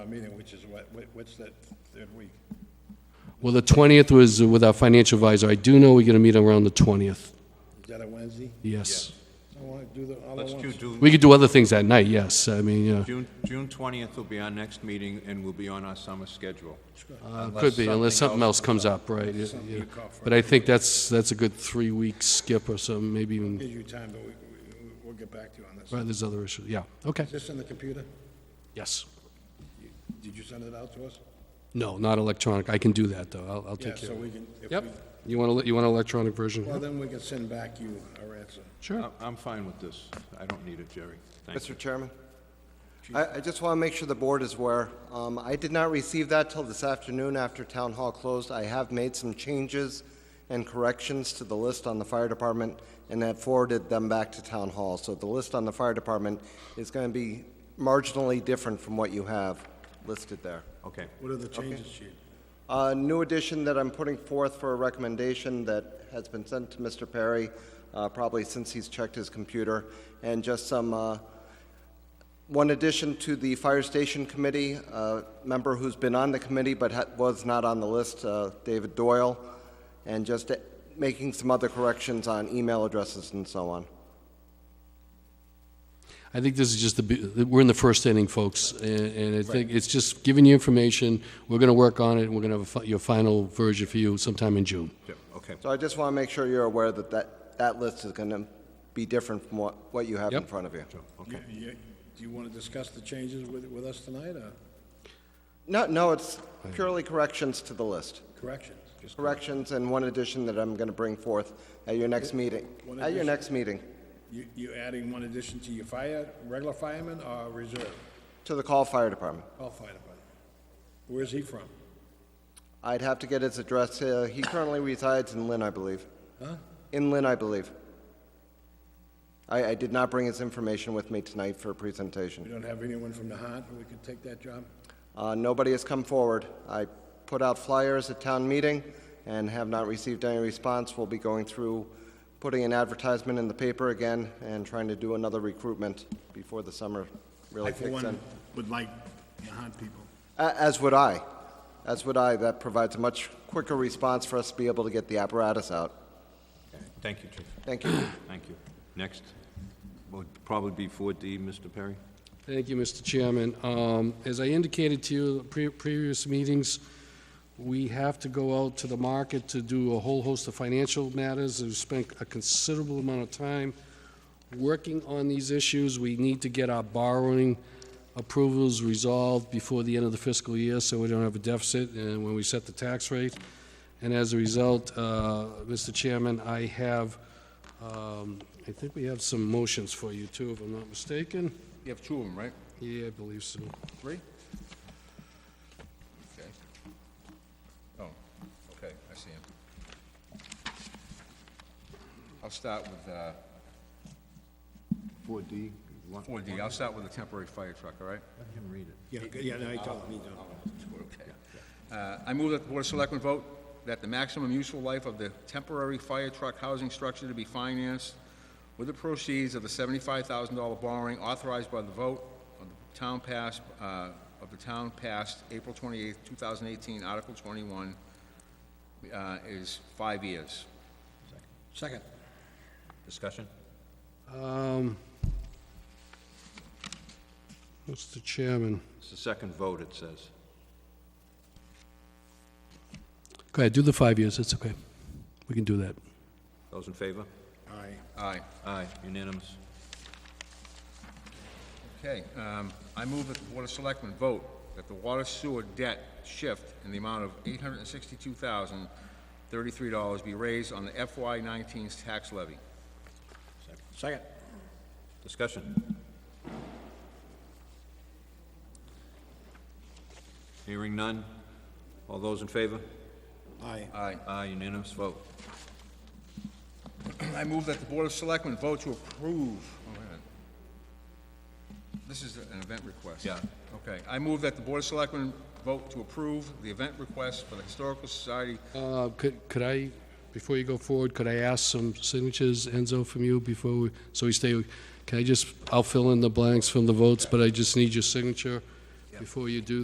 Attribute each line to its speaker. Speaker 1: our meeting, which is what, what- what's that third week?
Speaker 2: Well, the 20th was with our financial advisor. I do know we're going to meet around the 20th.
Speaker 1: Is that a Wednesday?
Speaker 2: Yes.
Speaker 1: I want to do the, all at
Speaker 3: Let's do
Speaker 1: once.
Speaker 3: June,
Speaker 2: We could do other things that night, yes. I mean, you know,
Speaker 3: June, June 20th will be our next meeting, and we'll be on our summer schedule.
Speaker 2: uh, could be, unless something else comes up, right? yeah, yeah. But I think that's, that's a good three-week skip or something, maybe even,
Speaker 1: Give you time, but we, we- we'll get back to you on this.
Speaker 2: right, there's other issues, yeah, okay,
Speaker 1: Is this in the computer?
Speaker 2: yes.
Speaker 1: Did you send it out to us?
Speaker 2: No, not electronic, I can do that, though, I'll, I'll
Speaker 1: Yeah,
Speaker 2: take care
Speaker 1: so
Speaker 2: of it.
Speaker 1: we can, if
Speaker 2: Yep,
Speaker 1: we,
Speaker 2: you want to, you want an electronic
Speaker 1: well,
Speaker 2: version?
Speaker 1: then we can send back you our answer.
Speaker 2: Sure.
Speaker 3: I- I'm fine with this. I don't need it, Jerry. Thank you.
Speaker 4: Mr. Chairman, I, I just want to make sure the board is aware. Um, I did not receive that till this afternoon after town hall closed. I have made some changes and corrections to the list on the fire department and have forwarded them back to town hall. So the list on the fire department is going to be marginally different from what you have listed there.
Speaker 3: Okay.
Speaker 1: What are the changes, chief?
Speaker 4: A new addition that I'm putting forth for a recommendation that has been sent to Mr. Perry, uh, probably since he's checked his computer, and just some, uh, one addition to the Fire Station Committee, a member who's been on the committee but ha- was not on the list, uh, David Doyle, and just uh, making some other corrections on email addresses and so on.
Speaker 2: I think this is just the, be- we're in the first inning, folks, and and I think it's just giving you information, we're going to work on it, and we're going to have a fi- your final version for you sometime in June.
Speaker 3: Yep, Okay.
Speaker 4: So I just want to make sure you're aware that that, that list is going to be different from what, what you have in
Speaker 2: Yep.
Speaker 4: front of you.
Speaker 1: You- you- Do you want to discuss the changes with, with us tonight, or
Speaker 4: No, no, it's purely corrections to the list.
Speaker 1: corrections? Just
Speaker 4: corrections and one addition that I'm going to bring forth at your next meeting.
Speaker 1: One
Speaker 4: At your
Speaker 1: addition?
Speaker 4: next meeting,
Speaker 1: You, you adding one addition to your fire, regular fireman or reserve?
Speaker 4: to the call fire department.
Speaker 1: All fire department. Where's he from?
Speaker 4: I'd have to get his address. uh, He currently resides in Lynn, I believe.
Speaker 1: Huh?
Speaker 4: In Lynn, I believe. I, I did not bring his information with me tonight for a presentation.
Speaker 1: We don't have anyone from the Nahant who could take that job?
Speaker 4: Uh, Nobody has come forward. I put out flyers at town meeting and have not received any response. We'll be going through, putting an advertisement in the paper again and trying to do another recruitment before the summer really
Speaker 1: I, for
Speaker 4: kicks
Speaker 1: one,
Speaker 4: in.
Speaker 1: would like Nahant people.
Speaker 4: A- As would I. As would I. That provides a much quicker response for us to be able to get the apparatus out.
Speaker 3: Okay. Thank you, Chief.
Speaker 4: Thank you.
Speaker 3: Thank you. Next would probably be 4D, Mr. Perry.
Speaker 2: Thank you, Mr. Chairman. Um, As I indicated to you at pre- previous meetings, we have to go out to the market to do a whole host of financial matters. We've spent a considerable amount of time working on these issues. We need to get our borrowing approvals resolved before the end of the fiscal year, so we don't have a deficit and when we set the tax rate. And as a result, uh, Mr. Chairman, I have, um, I think we have some motions for you, too, if I'm not mistaken.
Speaker 5: You have two of them, right?
Speaker 2: Yeah, I believe so.
Speaker 5: Three? Okay. Oh, okay, I see him. I'll start with, uh,
Speaker 3: 4D?
Speaker 5: 4D, I'll start with the temporary fire truck, all right?
Speaker 3: Let him read it.
Speaker 1: Yeah, g- yeah, no, I told him, he don't.
Speaker 5: Okay. Uh, I move that the Board of Selectmen vote that the maximum useful life of the temporary fire truck housing structure to be financed with the proceeds of the seventy-five thousand dollar borrowing authorized by the vote of the town passed, uh, of the town passed April twenty-eighth, two thousand eighteen, Article twenty-one, uh, is five years.
Speaker 1: Second.
Speaker 3: Discussion?
Speaker 2: Um, Mr. Chairman,
Speaker 3: It's the second vote, it says.
Speaker 2: go ahead, do the five years, that's okay. We can do that.
Speaker 3: Those in favor?
Speaker 1: Aye.
Speaker 5: Aye.
Speaker 3: Aye, unanimous.
Speaker 5: Okay, um, I move that the Board of Selectmen vote that the water sewer debt shift in the amount of eight hundred and sixty-two thousand, thirty-three dollars be raised on the FY 19s tax levy.
Speaker 1: Second.
Speaker 3: Discussion? Hearing none. All those in favor?
Speaker 1: Aye.
Speaker 5: Aye.
Speaker 3: Aye, unanimous vote.
Speaker 5: I move that the Board of Selectmen vote to approve, oh, wait a minute. This is an event request.
Speaker 3: Yeah.
Speaker 5: Okay, I move that the Board of Selectmen vote to approve the event request for the Historical Society
Speaker 2: Uh, Could could I, before you go forward, could I ask some signatures, Enzo, from you before, we so we stay, can I just, I'll fill in the blanks from the votes, but I just need your signature before you do